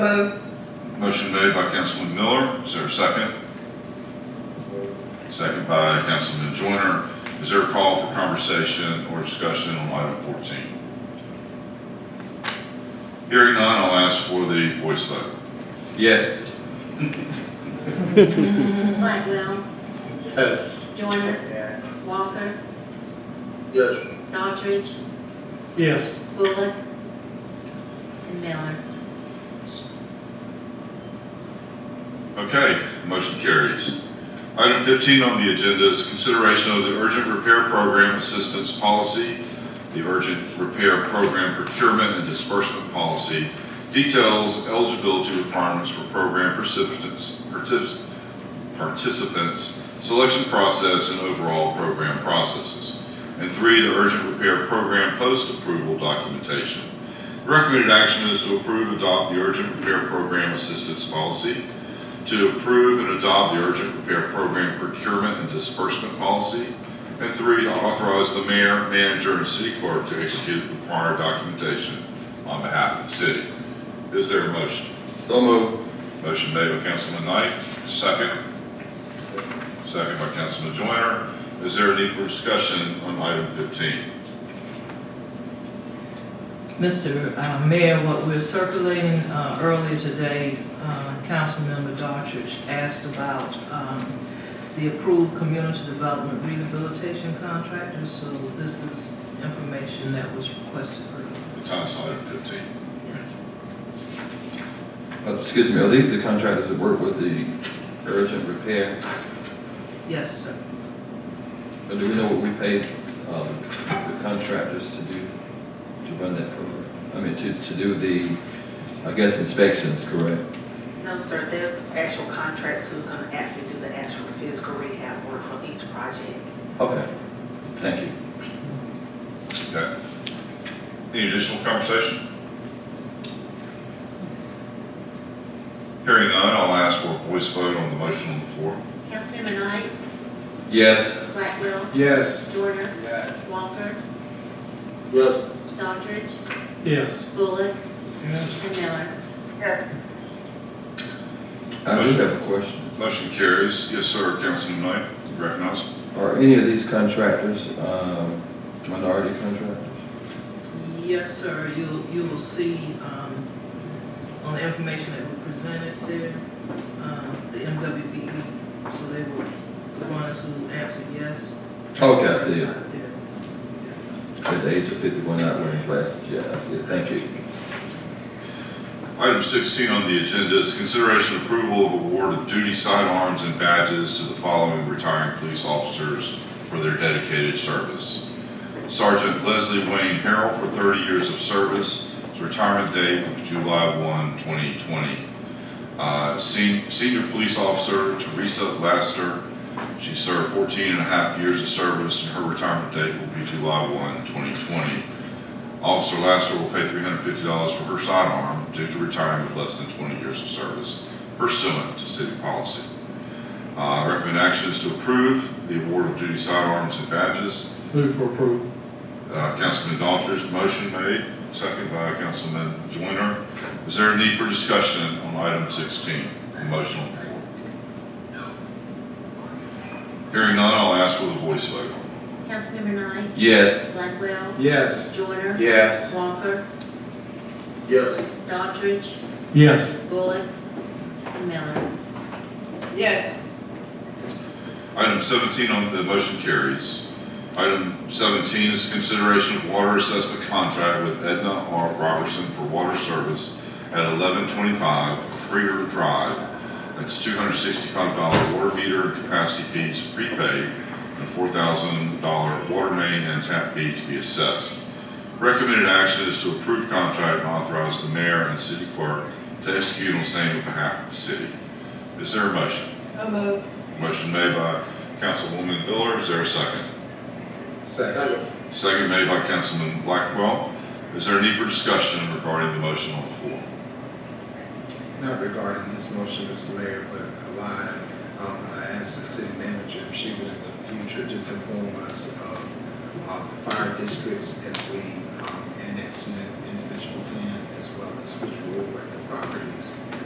Vote. Motion made by Councilman Miller, is there a second? Second by Councilman Joyner, is there a call for conversation or discussion on item fourteen? Hearing none, I'll ask for the voice vote. Yes. Blackwell, Yes. Joyner, Walker, Yes. Daughtridge, Yes. Bullock, and Miller. Okay, motion carries. Item fifteen on the agenda is consideration of the urgent repair program assistance policy, the urgent repair program procurement and disbursement policy, details eligibility requirements for program participants, partic- participants, selection process, and overall program processes. And three, the urgent repair program post-approval documentation. The Recommended action is to approve, adopt the urgent repair program assistance policy, to approve and adopt the urgent repair program procurement and disbursement policy. And three, to authorize the mayor, manager, and city clerk to execute required documentation on behalf of the city. Is there a motion? So moved. Motion made by Councilman Knight, second. Second by Councilman Joyner. Is there a need for discussion on item 15? Mr. uh, Mayor, what we're circulating uh, earlier today, uh, Councilmember Daughtridge asked about um, the approved community development rehabilitation contractor, so this is information that was requested earlier. It's on slide item 15. Yes. Uh, Excuse me, are these the contractors that work with the urgent repair? Yes, sir. Or do we know what we paid um, the contractors to do, to run that program? I mean, to, to do the, I guess inspections, correct? No, sir, there's actual contracts who's gonna actually do the actual physical rehab work for each project. Okay, thank you. Okay. Any additional conversation? Hearing none, I'll ask for a voice vote on the motion on the floor. Councilmember Knight, Yes. Blackwell, Yes. Joyner, Walker, Yes. Daughtridge, Yes. Bullock, Yes. and Miller. I do have a question. Motion carries. Yes, sir, Councilman Knight, you recognize. Are any of these contractors um, minority contractors? Yes, sir, you, you will see, um, on the information that we presented there, um, the MWBE, E. so they were the ones who answered yes. Okay, I see it. Out there. At the age of fifty-one, not wearing glasses, yeah, I see it, thank you. Item sixteen on the agenda is consideration approval of award of duty sidearms and badges to the following retiring police officers for their dedicated service. Sergeant Leslie Wayne Harrell for thirty years of service, his retirement date was July 1, 2020. Uh, sen- senior police officer Teresa Laster, she served 14 and a half years of service, and her retirement date will be July 1, 2020. Officer Laster will pay three hundred fifty dollars for her sidearm due to retiring with less than twenty years of service pursuant to city policy. Uh, recommend action is to approve the award of duty sidearms and badges. Move for approval. Uh, Councilman Daughtry's motion made, second by Councilman Joyner. Is there a need for discussion on item sixteen, the motion on the floor? Hearing none, I'll ask for the voice vote. Councilmember Knight, Yes. Blackwell, Yes. Joyner, Yes. Walker, Yes. Daughtridge, Yes. Bullock, and Miller. Item seventeen on the motion carries. Item seventeen is consideration of water assessment contract with Edna R. Robertson for water service at eleven twenty-five Freer Drive. That's two hundred sixty-five dollar water meter and capacity fees prepaid and four thousand dollar water main and tap fee to be assessed. Recommended action is to approve contract and authorize the mayor and city clerk to execute on same on behalf of the city. Is there a motion? Motion made by Councilwoman Miller, is there a second? Second. Second made by Councilman Blackwell. Is there a need for discussion regarding the motion on the floor? Not regarding this motion, Mr. Mayor, but a line, um, I asked the city manager if she would in the future just inform us of, uh, the fire districts as we, um, annex new individuals in, as well as which ward the properties